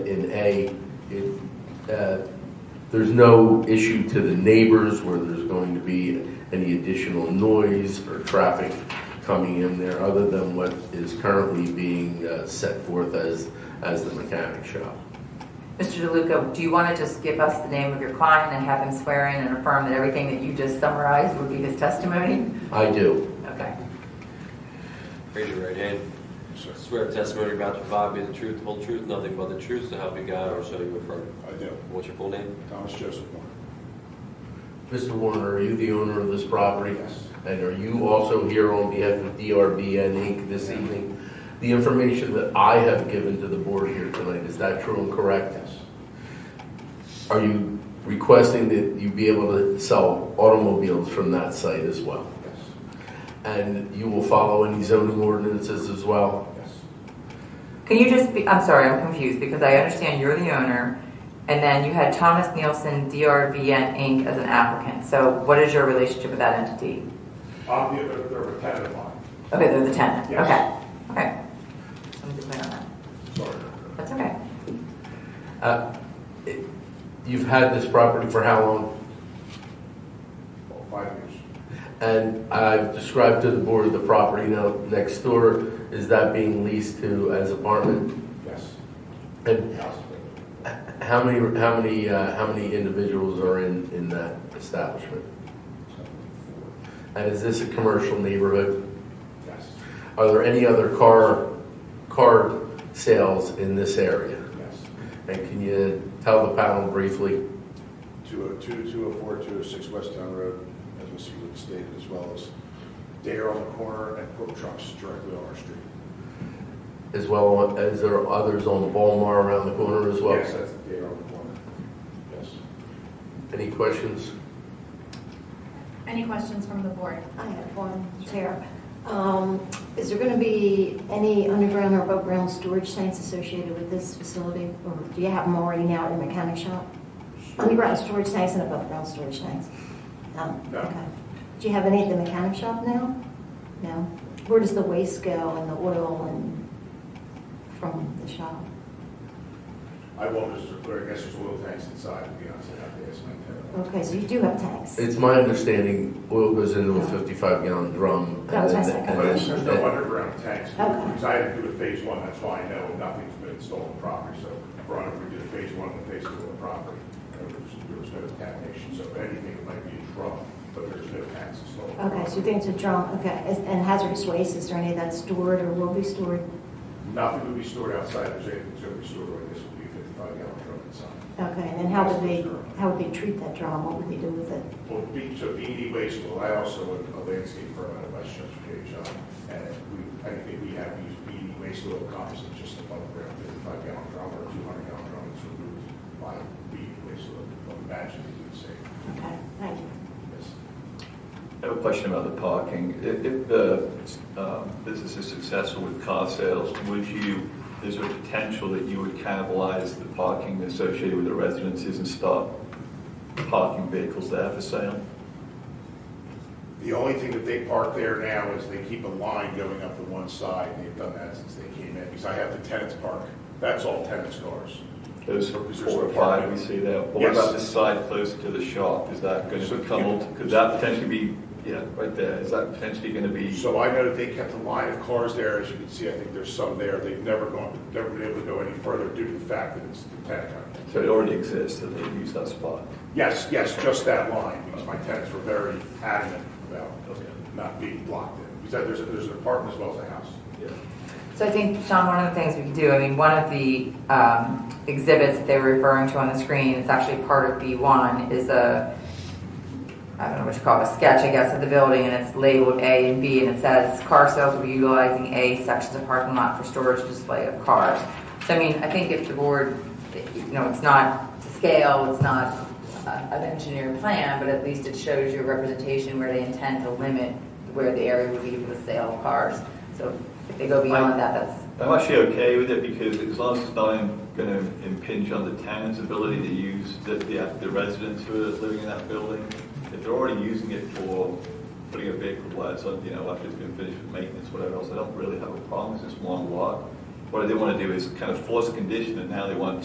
in A, it, uh, there's no issue to the neighbors where there's going to be any additional noise or traffic coming in there other than what is currently being uh, set forth as, as the mechanic shop. Mr. DeLuca, do you want to just give us the name of your client and have him swear in and affirm that everything that you just summarized would be his testimony? I do. Okay. Raise your right hand. Swear the testimony you're about to provide me the truth, the whole truth, nothing but the truth, so help you God, or so you affirm. I do. What's your full name? Thomas Joseph Warner. Mr. Warner, are you the owner of this property? Yes. And are you also here on behalf of DRBN Inc. this evening? The information that I have given to the board here tonight, is that true and correct? Yes. Are you requesting that you be able to sell automobiles from that site as well? Yes. And you will follow any zoning ordinances as well? Yes. Can you just be, I'm sorry, I'm confused because I understand you're the owner and then you had Thomas Nielsen, DRVN Inc. as an applicant. So what is your relationship with that entity? I'm the, they're a tenant of mine. Okay, they're the tenant. Yes. Okay, okay. Just wanted to clear on that. Sorry. That's okay. Uh, it- You've had this property for how long? Well, Oh, Five years. And I've described to the board the property now next door, is that being leased to as apartment? Yes. And Yes. how many, how many, uh, how many individuals are in, in that establishment? And is this a commercial neighborhood? Yes. Are there any other car, car sales in this area? Yes. And can you tell the panel briefly? 202, 204, 206 West Town Road, as we see with the state, as well as Dare on the corner and Quick Trucks directly on our street. As well, as there are others on Ballmar around the corner as well? Yes, that's Dare on the corner. Yes. Any questions? Any questions from the board? I have one, Tara. Um, Is there going to be any underground or above-ground storage tanks associated with this facility? Or do you have them already now in the mechanic shop? Underground storage tanks and above-ground storage tanks? No? No. Okay. Do you have any at the mechanic shop now? No? Where does the waste go and the oil and from the shop? I won't, Mr. Clerk, I guess there's oil tanks inside, to be honest, I have to ask my tenant. Okay, so you do have tanks? It's my understanding oil goes into a 55 gallon drum. and That was my then- second and But then- question. There's no underground tanks, Okay. because I had to do a phase one, that's why I know nothing's been installed on property, so brought up, we did a phase one and a phase two on the property. There was, there was no contamination, so if anything, it might be a drum, but there's no tanks installed. on Okay, property. so you think it's a drum, okay. Is- And hazardous waste, is there any that's stored or will be stored? Nothing will be stored outside, there's anything that's gonna be stored, like this will be a fifty-five gallon drum inside. Okay, and then how would they, how would they treat that drum? What would they do with it? Well, B, so BD waste will allow also a landscape permit, a Westchester Page, and we, I think we have used BD waste oil comes in just above ground, fifty-five gallon drum or two hundred gallon drum, it's removed by BD waste oil, but imagine you would say, Okay, thank you. yes. I have a question about the parking. If if the um, business is successful with car sales, would you, is there a potential that you would cannibalize the parking associated with the residences and start parking vehicles there for sale? The only thing that they park there now is they keep a line going up to one side, and they've done that since they came in, because I have the tenants park, that's all tenants cars. Those Is there four or some five we parking? see there. But Yes. What about the side closer to the shop? Is that going So to become, you- alt- could that potentially be, yeah, right there, is that potentially going to be? So I know that they kept a line of cars there, as you can see, I think there's some there, they've never gone, never been able to go any further due to the fact that it's the tenant company. So it already exists, and they use that spot. Yes, yes, just that line, because my tenants were very adamant about Okay. not being blocked in. Because there's, a- there's an apartment as well as a house. Yeah. So I think, Sean, one of the things we could do, I mean, one of the um, exhibits that they were referring to on the screen, it's actually part of B1, is a, I don't know what you call it, a sketch, I guess, of the building, and it's labeled A and B, and it says, "Car sales will be utilizing A sections of parking lot for storage display of cars." So I mean, I think if the board, you know, it's not to scale, it's not a- an engineered plan, but at least it shows your representation where they intend to limit where the area would be for the sale of cars. So if they go beyond that, that's, I'm actually okay with it because as long as it's not going to impinge on the town's ability to use the, the the residents who are living in that building. If they're already using it for putting a vehicle where it's, you know, after it's been finished with maintenance, whatever else, I don't really have a problem. It's just one lot. What I did want to do is kind of force a condition that now they want